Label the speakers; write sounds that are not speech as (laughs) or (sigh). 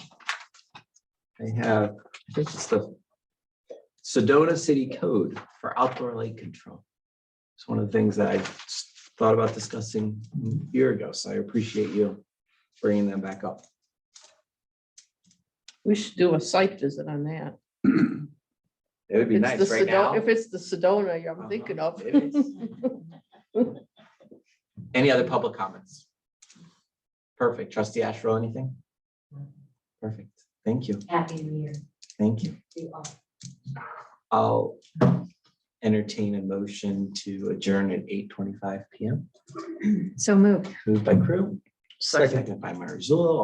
Speaker 1: I have, I think it's the Sedona City Code for outdoor light control. It's one of the things that I s- thought about discussing a year ago, so I appreciate you bringing them back up.
Speaker 2: We should do a site visit on that.
Speaker 1: It would be
Speaker 2: It's
Speaker 1: nice
Speaker 2: the
Speaker 1: right
Speaker 2: Sedo-
Speaker 1: now.
Speaker 2: If it's the Sedona I'm
Speaker 1: Uh-huh,
Speaker 2: thinking of.
Speaker 1: it is.
Speaker 2: (laughs)
Speaker 1: Any other public comments? Perfect. Trustee Ashrow, anything? Perfect. Thank you.
Speaker 3: Happy New Year
Speaker 1: Thank you.
Speaker 3: to all.
Speaker 1: I'll entertain a motion to adjourn at eight twenty-five PM.
Speaker 3: So moved.
Speaker 1: Moved by Crew. Seconded by Marzullo.